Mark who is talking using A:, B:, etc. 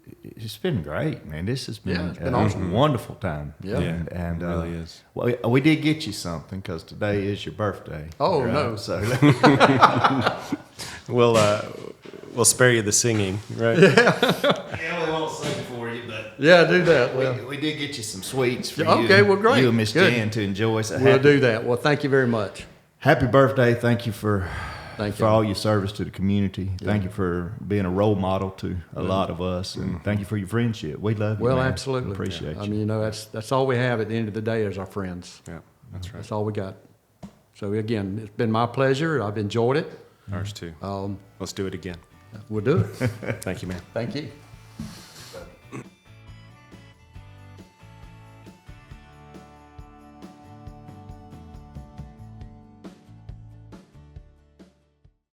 A: it's been great, man. This has been,
B: Yeah, it's been
A: uh,
B: awesome.
A: a wonderful time.
B: Yeah.
A: and, and,
C: it
A: uh,
C: really is.
A: Well, we did get you something because today is your birthday.
B: Oh, no.
A: So
C: We'll uh, we'll spare you the singing, right?
A: yeah, we won't sing for you, but
B: Yeah, do that. Well,
A: we, we did get you some sweets for
B: Yeah,
A: you.
B: okay, well, great.
A: You and Miss
B: Good.
A: Jan to enjoy. So
B: we'll
A: happy,
B: do that. Well, thank you very much.
A: happy birthday! Thank you for
B: Thank
A: for
B: you.
A: all your service to the community. Thank you for being a role model to a lot of us, and
C: Mm-hmm.
A: thank you for your friendship. We love you.
B: Well,
A: man.
B: absolutely.
A: appreciate
B: I
A: you.
B: mean, you know, that's that's all we have at the end of the day is our friends.
C: Yeah, that's right.
B: That's all we got. So again, it's been my pleasure. I've enjoyed it.
C: Ours too.
B: Um,
C: Let's do it again.
B: we'll do it.
C: Thank you, man.
B: Thank you.